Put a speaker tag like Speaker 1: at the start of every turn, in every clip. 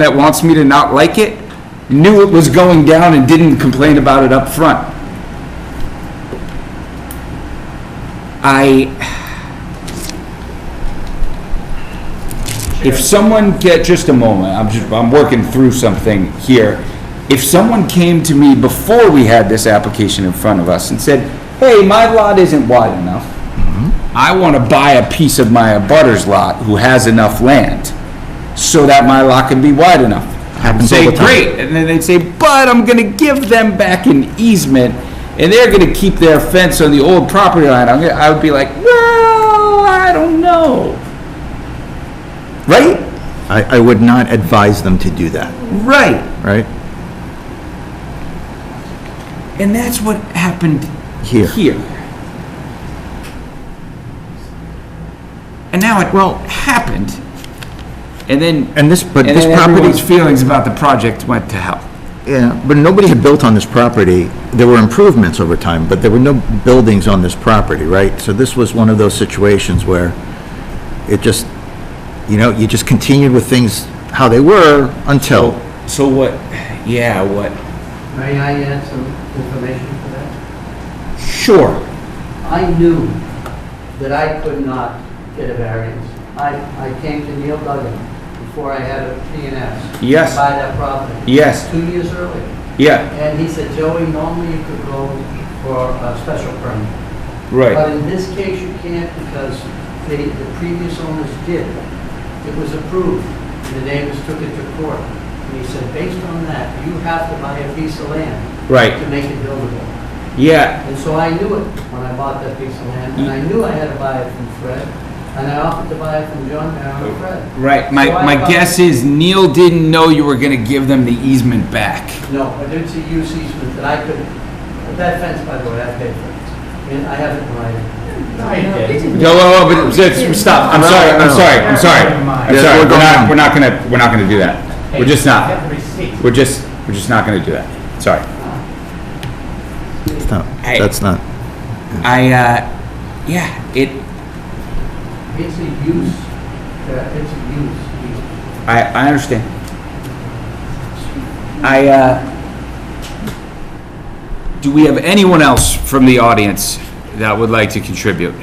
Speaker 1: that wants me to not like it knew it was going down and didn't complain about it up front. I, If someone get, just a moment, I'm just, I'm working through something here. If someone came to me before we had this application in front of us and said, hey, my lot isn't wide enough.
Speaker 2: Mm-hmm.
Speaker 1: I want to buy a piece of my abutter's lot who has enough land so that my lot can be wide enough. I'd
Speaker 2: Happens all
Speaker 1: say,
Speaker 2: the time.
Speaker 1: great, and then they'd say, but I'm gonna give them back an easement and they're gonna keep their fence on the old property line. I'm gonna, I would be like, well, I don't know. Right?
Speaker 2: I, I would not advise them to do that,
Speaker 1: Right.
Speaker 2: right?
Speaker 1: And that's what happened
Speaker 2: Here.
Speaker 1: Here. And now it well happened. And then
Speaker 2: And this, but
Speaker 1: and
Speaker 2: this
Speaker 1: then everyone's
Speaker 2: property,
Speaker 1: feelings about the project went to hell.
Speaker 2: yeah, but nobody had built on this property. There were improvements over time, but there were no buildings on this property, right? So this was one of those situations where it just, you know, you just continued with things how they were until,
Speaker 1: So what? Yeah. What?
Speaker 3: May I add some information to that?
Speaker 1: Sure.
Speaker 3: I knew that I could not get a variance. I, I came to Neil Duggan before I had a PNS.
Speaker 1: Yes.
Speaker 3: To buy that property.
Speaker 1: Yes.
Speaker 3: Two years earlier.
Speaker 1: Yeah.
Speaker 3: And he said, Joey, normally you could go for a special permit. But
Speaker 1: Right.
Speaker 3: in this case, you can't because the, the previous owners did. It was approved, and the neighbors took it to court. And he said, based on that, you have to buy a piece of land
Speaker 1: Right.
Speaker 3: to make it buildable.
Speaker 1: Yeah.
Speaker 3: And so I knew it when I bought that piece of land, and I knew I had to buy it from Fred, and I offered to buy it from John Merrill and Fred.
Speaker 1: Right. My
Speaker 3: So I
Speaker 1: my
Speaker 3: thought-
Speaker 1: guess is Neil didn't know you were gonna give them the easement back.
Speaker 3: No, but it's a use easement that I could, that fence, by the way, I paid for it, and I have it in writing.
Speaker 1: No, no, no, but just stop. I'm sorry. I'm sorry. I'm sorry. I'm
Speaker 2: Yeah,
Speaker 1: sorry.
Speaker 2: we're
Speaker 1: We're
Speaker 2: going
Speaker 1: not.
Speaker 2: on.
Speaker 1: We're not gonna. We're not gonna do that. We're just not. We're just, we're just not gonna do that. Sorry.
Speaker 2: no,
Speaker 1: Hey.
Speaker 2: that's not.
Speaker 1: I, uh, yeah, it,
Speaker 3: It's a use, uh, it's a use easement.
Speaker 1: I, I understand. I, uh, do we have anyone else from the audience that would like to contribute?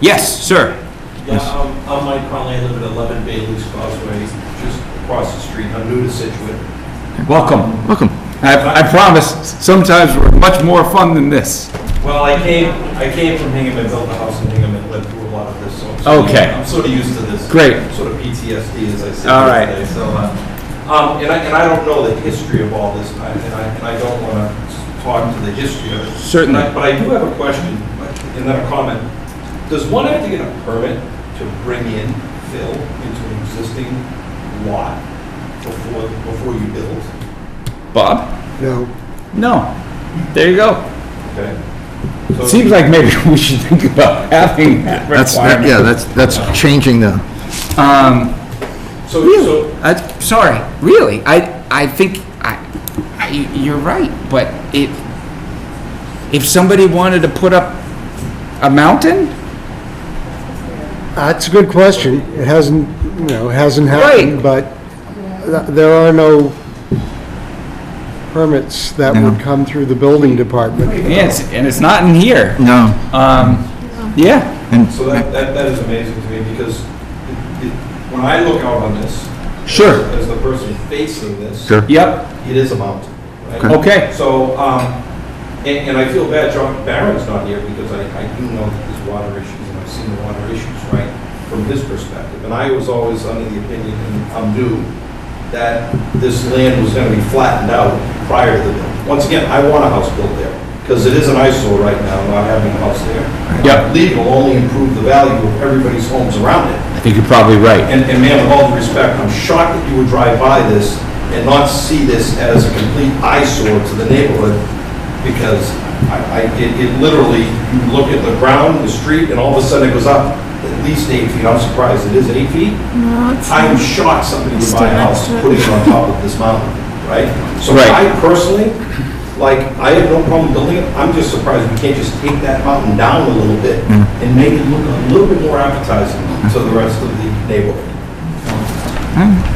Speaker 1: Yes, sir.
Speaker 4: Yeah, um, I'm I'm Mike Conley, I live at 11 Bailey's Causeway, just across the street, I'm new to Situate.
Speaker 1: Welcome.
Speaker 2: Welcome.
Speaker 1: I, I promise, sometimes we're much more fun than this.
Speaker 4: Well, I came, I came from Hingham, I built a house in Hingham and lived through a lot of this, so. I'm sort of-
Speaker 1: Okay.
Speaker 4: I'm sort of used to this.
Speaker 1: Great.
Speaker 4: Sort of PTSD as I sit
Speaker 1: All
Speaker 4: here
Speaker 1: right.
Speaker 4: today, so. uh, um, And I, and I don't know the history of all this, I- and I, and I don't want to talk to the history of it.
Speaker 1: Certainly.
Speaker 4: But I- But I do have a question, and then a comment. Does one have to get a permit to bring in fill into an existing lot before, before you build?
Speaker 1: Bob?
Speaker 5: No,
Speaker 1: No. There you go.
Speaker 4: Okay. So-
Speaker 1: It seems like maybe we should think about having that
Speaker 2: That's, that- yeah,
Speaker 1: requirement.
Speaker 2: that's, that's changing the,
Speaker 1: Um,
Speaker 4: So, so,
Speaker 1: I, sorry, really, I, I think, I, I, you're right, but it, if somebody wanted to put up a mountain,
Speaker 5: that's Uh, a good question. It hasn't, you know, it hasn't
Speaker 1: Right.
Speaker 5: happened, but th- there are no permits that
Speaker 2: No.
Speaker 5: would come through the building department.
Speaker 1: and it's, and it's not in here,
Speaker 2: no.
Speaker 1: um, yeah,
Speaker 2: And,
Speaker 4: So that, that, that is amazing to me because it- it- when I look out on this,
Speaker 1: sure,
Speaker 4: as the person facing this,
Speaker 2: Sure.
Speaker 1: yep,
Speaker 4: it is a mountain, right?
Speaker 1: okay,
Speaker 4: So, um, and, and I feel bad John Barron's not here because I, I do know that there's water issues and I've seen the water issues, right, from his perspective. And I was always under the opinion, and I'm new, that this land was gonna be flattened out prior to the build. Once again, I want a house built there because it is an eyesore right now, not having a house there.
Speaker 1: Yep.
Speaker 4: Legal only improve the value of everybody's homes around it.
Speaker 1: I think you're probably right.
Speaker 4: And, and ma'am, with all due respect, I'm shocked that you would drive by this and not see this as a complete eyesore to the neighborhood, because I, I, it, it literally, you look at the ground, the street, and all of a sudden it goes up at least eight feet, I'm surprised, it is eight feet?
Speaker 6: No, it's
Speaker 4: I'm shocked somebody would buy a house putting it on top of this mountain, right? So
Speaker 1: Right.
Speaker 4: I personally, like, I have no problem building it, I'm just surprised we can't just take that mountain down a little bit and make it look a little bit more appetizing to the rest of the neighborhood.